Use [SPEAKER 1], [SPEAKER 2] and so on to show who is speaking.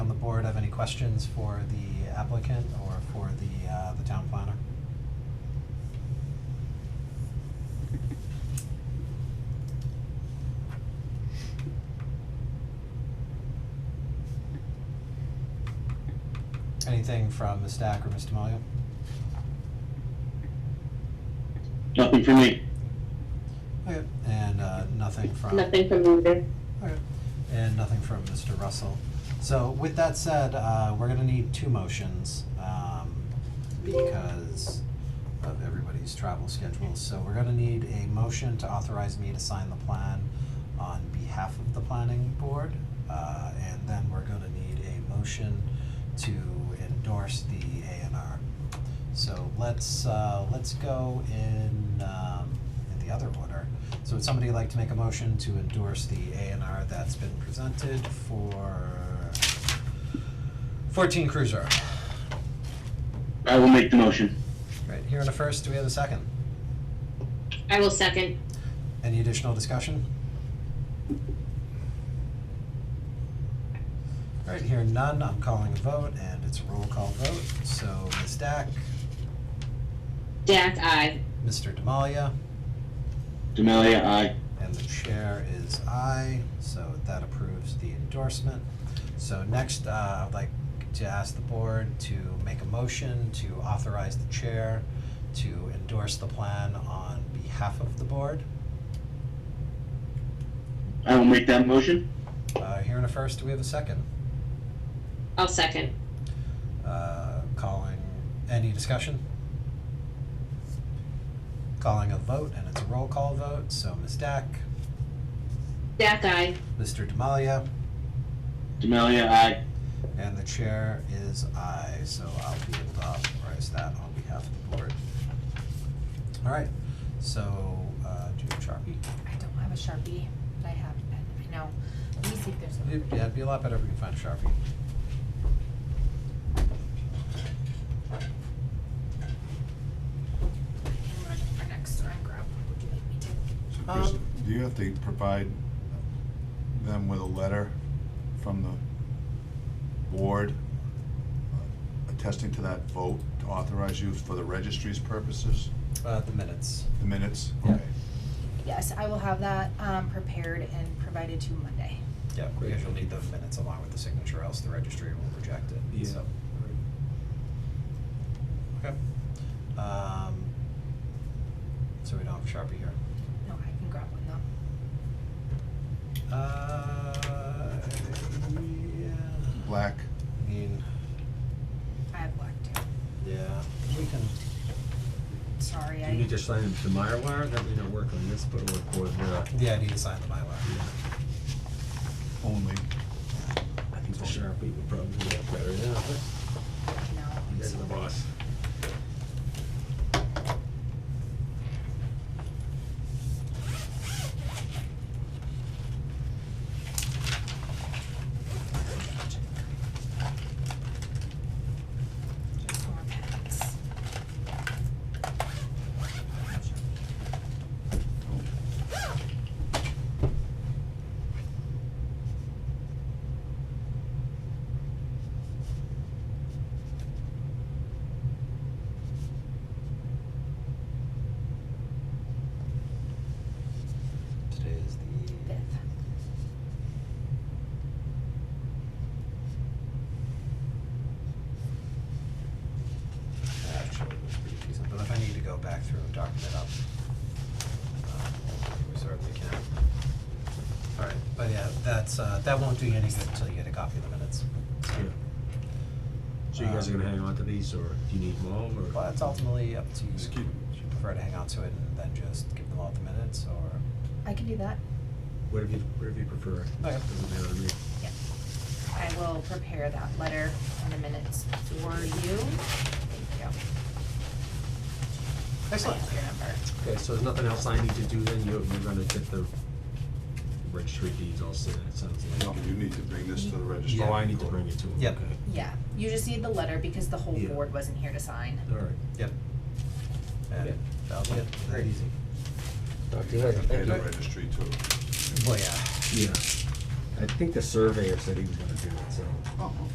[SPEAKER 1] questions for the applicant or for the, uh, the town planner? Anything from Ms. Stack or Mr. Tamayo?
[SPEAKER 2] Nothing for me.
[SPEAKER 1] Okay. And, uh, nothing from?
[SPEAKER 3] Nothing from me either.
[SPEAKER 1] Okay. And nothing from Mr. Russell. So with that said, uh, we're gonna need two motions, um, because of everybody's travel schedules. So we're gonna need a motion to authorize me to sign the plan on behalf of the planning board. Uh, and then we're gonna need a motion to endorse the A and R. So let's, uh, let's go in, um, in the other order. So would somebody like to make a motion to endorse the A and R that's been presented for fourteen Cruiser?
[SPEAKER 2] I will make the motion.
[SPEAKER 1] Right, here in a first, do we have a second?
[SPEAKER 3] I will second.
[SPEAKER 1] Any additional discussion? All right, here none, I'm calling a vote, and it's a roll call vote, so Ms. Dack,
[SPEAKER 3] Dak, aye.
[SPEAKER 1] Mr. Demalia,
[SPEAKER 2] Demalia, aye.
[SPEAKER 1] and the chair is aye, so that approves the endorsement. So next, uh, I'd like to ask the board to make a motion to authorize the chair to endorse the plan on behalf of the board.
[SPEAKER 2] I will make that motion.
[SPEAKER 1] Uh, here in a first, do we have a second?
[SPEAKER 3] I'll second.
[SPEAKER 1] Uh, calling, any discussion? Calling a vote, and it's a roll call vote, so Ms. Dack,
[SPEAKER 3] Dak, aye.
[SPEAKER 1] Mr. Demalia,
[SPEAKER 2] Demalia, aye.
[SPEAKER 1] and the chair is aye, so I'll be able to authorize that on behalf of the board. All right, so, uh, do you have Sharpie?
[SPEAKER 4] I don't have a Sharpie, but I have, I- I know. Let me see if there's a.
[SPEAKER 1] It'd- Yeah, it'd be a lot better if we could find a Sharpie.
[SPEAKER 4] I can run over next door and grab one. Would you like me to?
[SPEAKER 5] So Chris,
[SPEAKER 1] Um,
[SPEAKER 5] do you have to provide them with a letter from the board uh, attesting to that vote to authorize you for the registry's purposes,
[SPEAKER 1] Uh, the minutes.
[SPEAKER 5] the minutes?
[SPEAKER 1] Yeah.
[SPEAKER 5] Okay.
[SPEAKER 4] Yes, I will have that, um, prepared and provided to you Monday.
[SPEAKER 1] Yeah, because you'll need the minutes along with the signature, else the registry will reject it, so. Okay. Um, so we don't have Sharpie here.
[SPEAKER 4] No, I can grab one though.
[SPEAKER 1] Uh, yeah.
[SPEAKER 5] Black,
[SPEAKER 1] I mean,
[SPEAKER 4] I have black too.
[SPEAKER 1] yeah, we can,
[SPEAKER 4] Sorry,
[SPEAKER 6] You need
[SPEAKER 4] I,
[SPEAKER 6] to sign the Myrwire, that may not work on this, but it'll work with, uh,
[SPEAKER 1] yeah, I need to sign the Mylar.
[SPEAKER 5] only.
[SPEAKER 6] I think the Sharpie would probably work better, yeah, but
[SPEAKER 4] no.
[SPEAKER 6] you guys are the boss.
[SPEAKER 4] There's more packs.
[SPEAKER 1] Today is the
[SPEAKER 4] Fifth.
[SPEAKER 1] actually it was pretty decent, but if I need to go back through and document up, um, we certainly can. All right, but yeah, that's, uh, that won't do you any good until you get a copy of the minutes.
[SPEAKER 6] Yeah. So you guys are gonna hang on to these, or do you need them all, or?
[SPEAKER 1] Well, it's ultimately up to you.
[SPEAKER 5] Just keep-
[SPEAKER 1] Would you prefer to hang on to it and then just give them all the minutes, or?
[SPEAKER 4] I can do that.
[SPEAKER 6] Whatever you, whatever you prefer.
[SPEAKER 1] Okay.
[SPEAKER 6] Doesn't matter to me.
[SPEAKER 4] I will prepare that letter and the minutes for you. Thank you. I have your number.
[SPEAKER 6] Okay, so there's nothing else I need to do then, you're, you're gonna get the registry deeds all set, it sounds
[SPEAKER 5] No,
[SPEAKER 6] like.
[SPEAKER 5] you need to bring this to the registry.
[SPEAKER 6] Oh, I need to bring it to them,
[SPEAKER 1] Yep.
[SPEAKER 6] okay.
[SPEAKER 4] Yeah, you just need the letter because the whole
[SPEAKER 6] Yeah.
[SPEAKER 4] board wasn't here to sign.
[SPEAKER 6] All right.
[SPEAKER 1] Yep.
[SPEAKER 6] Yeah.
[SPEAKER 1] And that'll be it.
[SPEAKER 6] Very easy. Talk to you later.
[SPEAKER 5] And pay
[SPEAKER 6] Thank
[SPEAKER 5] the
[SPEAKER 6] you.
[SPEAKER 5] registry too.
[SPEAKER 1] Well, yeah.
[SPEAKER 6] Yeah. I think the surveyor said he was gonna do it, so.